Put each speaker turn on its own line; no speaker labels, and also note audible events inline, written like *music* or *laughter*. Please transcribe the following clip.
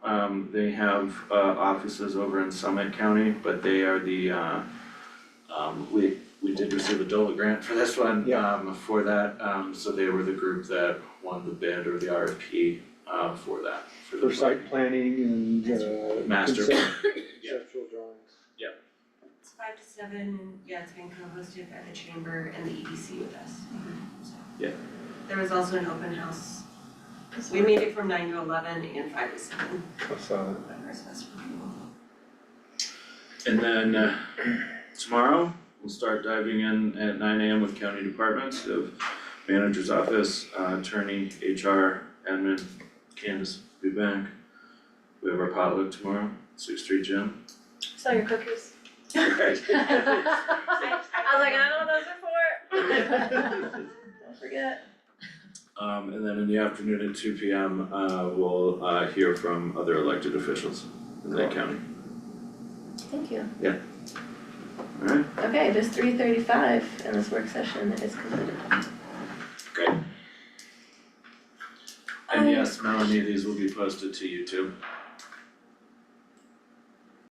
Um, they have, uh, offices over in Summit County, but they are the, uh, um, we, we did receive a DOLA grant for this one,
Yeah.
um, for that, um, so they were the group that won the bid or the RFP, uh, for that, for the.
For site planning and uh.
Master
concept-
Yeah.
Conceptual drawings.
It's five to seven, and yeah, it's being co-hosted by the chamber and the EDC with us, so.
Yeah.
There was also an open house, we made it from nine to eleven and five to seven,
I saw that.
but ours was from
And then uh, tomorrow, we'll start diving in at nine AM with county departments, we have manager's office, uh, attorney, HR, admin, Candace will be back. We have our potluck tomorrow, six street gym.
Sell your *laughs* cookies. I was like, I know what those are for. *laughs* Don't forget.
Um, and then in the afternoon at two PM, uh, we'll uh, hear from other elected officials in that county,
Thank you.
alright?
Okay, it is three thirty-five and this work session is completed.
uh, And yes, Melanie, these will be posted to YouTube.